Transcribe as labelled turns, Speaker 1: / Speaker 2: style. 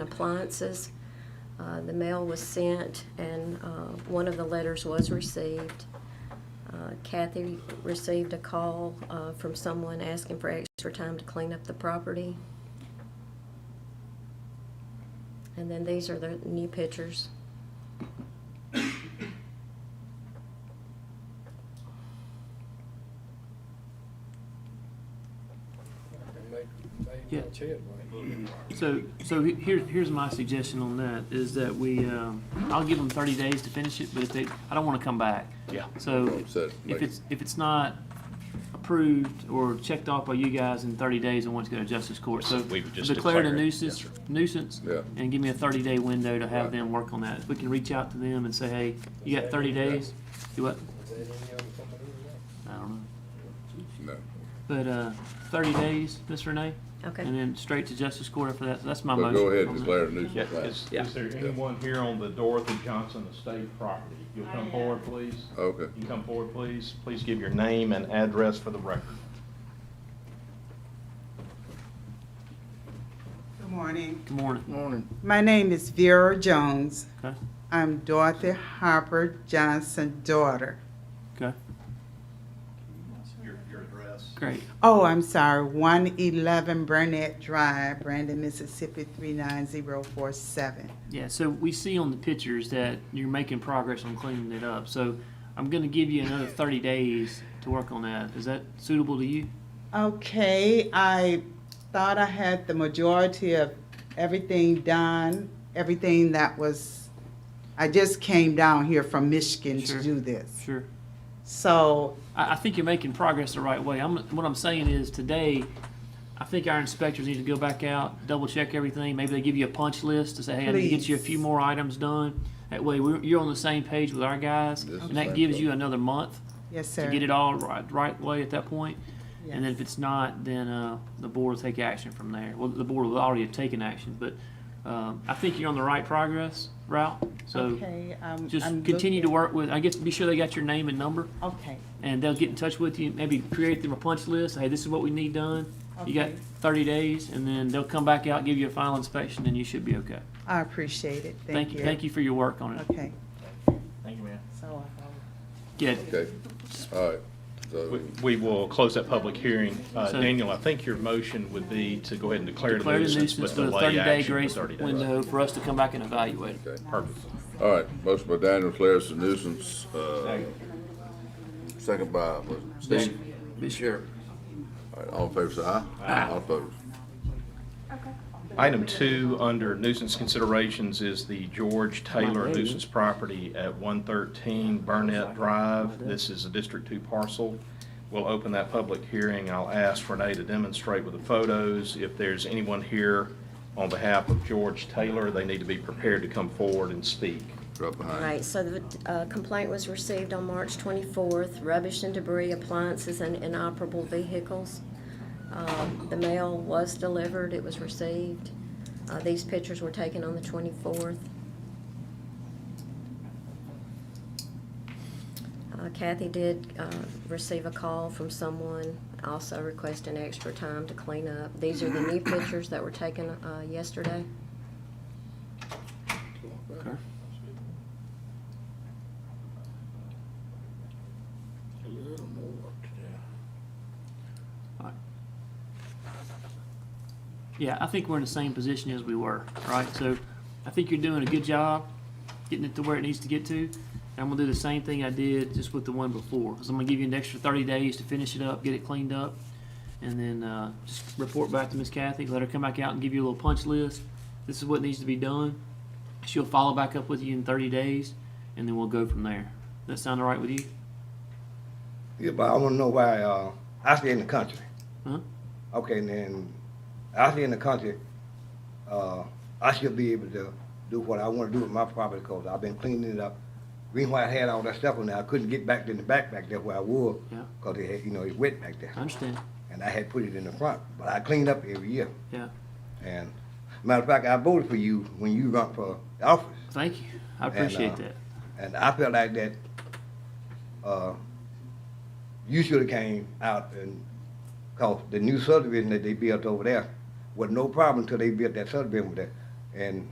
Speaker 1: and appliances. Uh, The mail was sent, and uh, one of the letters was received. Uh, Kathy received a call uh, from someone asking for extra time to clean up the property. And then these are the new pictures.
Speaker 2: And they, they
Speaker 3: Yeah.
Speaker 2: match it, right?
Speaker 3: So, so he- here, here's my suggestion on that, is that we, um, I'll give them thirty days to finish it, but if they, I don't wanna come back.
Speaker 4: Yeah.
Speaker 3: So,
Speaker 4: So,
Speaker 3: if
Speaker 4: like-
Speaker 3: it's, if it's not approved or checked off by you guys in thirty days, I want it to go to justice court, so.
Speaker 4: We would just
Speaker 3: Declare it a
Speaker 4: declare it.
Speaker 3: nuisance,
Speaker 4: Yes,
Speaker 3: nuisance.
Speaker 4: Yeah.
Speaker 3: And give me a thirty day window to have
Speaker 4: Right.
Speaker 3: them work on that. We can reach out to them and say, hey, you got thirty days, do what?
Speaker 2: Is that any other company or
Speaker 3: I don't know,
Speaker 4: No.
Speaker 3: but, uh, thirty days, Ms. Renee? And
Speaker 1: Okay.
Speaker 3: then straight to justice court after that, that's my
Speaker 4: But
Speaker 3: motion.
Speaker 4: go ahead
Speaker 3: on
Speaker 4: and
Speaker 3: that.
Speaker 4: declare a
Speaker 5: Yeah,
Speaker 4: nuisance.
Speaker 5: is,
Speaker 4: plan.
Speaker 3: Yeah.
Speaker 5: is there anyone here on the Dorothy Johnson Estate property? You'll come forward, please.
Speaker 4: Okay.
Speaker 5: You come forward, please. Please give your name and address for the record.
Speaker 6: Good morning.
Speaker 3: Good morning,
Speaker 6: My name is Vera Jones.
Speaker 3: okay,
Speaker 6: I'm Dorothy Harper Johnson's daughter.
Speaker 3: okay,
Speaker 5: Your, your address.
Speaker 3: great.
Speaker 6: Oh, I'm sorry, 111 Burnett Drive, Brandon, Mississippi 39047.
Speaker 3: Yeah, so we see on the pictures that you're making progress on cleaning it up. So I'm going to give you another 30 days to work on that. Is that suitable to you?
Speaker 6: Okay, I thought I had the majority of everything done, everything that was, I just came down here from Michigan
Speaker 3: Sure.
Speaker 6: to do this.
Speaker 3: Sure.
Speaker 6: So,
Speaker 3: I, I think you're making progress the right way. I'm, what I'm saying is today, I think our inspectors need to go back out, double check everything. Maybe they give you a punch list to say, hey, I need to get you a few
Speaker 6: Please.
Speaker 3: more items done. That way, we're, you're on the same page with our guys,
Speaker 4: This is
Speaker 3: and that
Speaker 4: same
Speaker 3: gives you
Speaker 4: problem.
Speaker 3: another month
Speaker 6: yes, sir.
Speaker 3: to get it all right, right way at that point. And then
Speaker 6: Yes.
Speaker 3: if it's not, then uh, the board will take action from there. Well, the board will already have taken action, but um, I think you're on the right progress route. So
Speaker 6: Okay, I'm-
Speaker 3: just
Speaker 6: I'm
Speaker 3: continue to
Speaker 6: looking-
Speaker 3: work with, I guess, be sure they got your name and number,
Speaker 6: Okay.
Speaker 3: and they'll get in touch with you, maybe create them a punch list, hey, this is what we need done. You got
Speaker 6: Okay.
Speaker 3: thirty days, and then they'll come back out, give you a final inspection, and you should be okay.
Speaker 6: I appreciate it. Thank you.
Speaker 3: Thank you for your work on it.
Speaker 6: Okay,
Speaker 5: Thank you, ma'am.
Speaker 6: so I'll.
Speaker 3: Yeah,
Speaker 4: Okay, all right, so,
Speaker 5: We, we will close that public hearing. Uh,
Speaker 3: So-
Speaker 5: Daniel, I think your motion would be to go ahead and declare the
Speaker 3: declare the
Speaker 5: nuisance,
Speaker 3: nuisance
Speaker 5: but
Speaker 3: with a
Speaker 5: delay
Speaker 3: thirty-day
Speaker 5: action for
Speaker 3: grace
Speaker 5: 30 days.
Speaker 3: window for us to come back and evaluate it.
Speaker 4: okay,
Speaker 5: Perfect.
Speaker 4: all right, motion by Daniel declares a nuisance, uh, second by, was it Steve? Sure. All right, all in favor, say aye. Aye. All opposed,
Speaker 5: Item two, under nuisance considerations, is the George
Speaker 3: My
Speaker 5: Taylor
Speaker 3: baby.
Speaker 5: nuisance property at 113 Burnett Drive. This is a District 2 parcel. We'll open that public hearing. I'll ask Renee to demonstrate with the photos. If there's anyone here on behalf of George Taylor, they need to be prepared to come forward and speak.
Speaker 4: drop behind.
Speaker 1: All right, so the uh, complaint was received on March 24th, rubbish and debris, appliances, and inoperable vehicles. Um, The mail was delivered, it was received. Uh, These pictures were taken on the 24th. Uh, Kathy did uh, receive a call from someone also requesting extra time to clean up. These are the new pictures that were taken uh, yesterday.
Speaker 2: A little more
Speaker 3: Yeah, I think we're in the same position as we were, right? So I think you're doing a good job getting it to where it needs to get to. And I'm gonna do the same thing I did just with the one before. Cause I'm gonna give you an extra thirty days to finish it up, get it cleaned up. And then, uh, just report back to Miss Kathy, let her come back out and give you a little punch list. This is what needs to be done. She'll follow back up with you in thirty days and then we'll go from there. That sound all right with you?
Speaker 7: Yeah, but I want to know why uh, I stay in the country.
Speaker 3: Huh?
Speaker 7: Okay, and then I stay in the country. Uh, I should be able to do what I want to do with my property because I've been cleaning it up. Reason why I had all that stuff on there, I couldn't get back in the back back there where I was
Speaker 3: Yeah.
Speaker 7: because it had, you know, it's wet back there.
Speaker 3: I understand.
Speaker 7: And I had put it in the front, but I cleaned up every year.
Speaker 3: Yeah.
Speaker 7: And matter of fact, I voted for you when you run for office.
Speaker 3: Thank you. I
Speaker 7: And, uh,
Speaker 3: appreciate that.
Speaker 7: And I felt like that uh, you should have came out and, cause the new subdivision that they built over there was no problem until they built that subdivision over there. And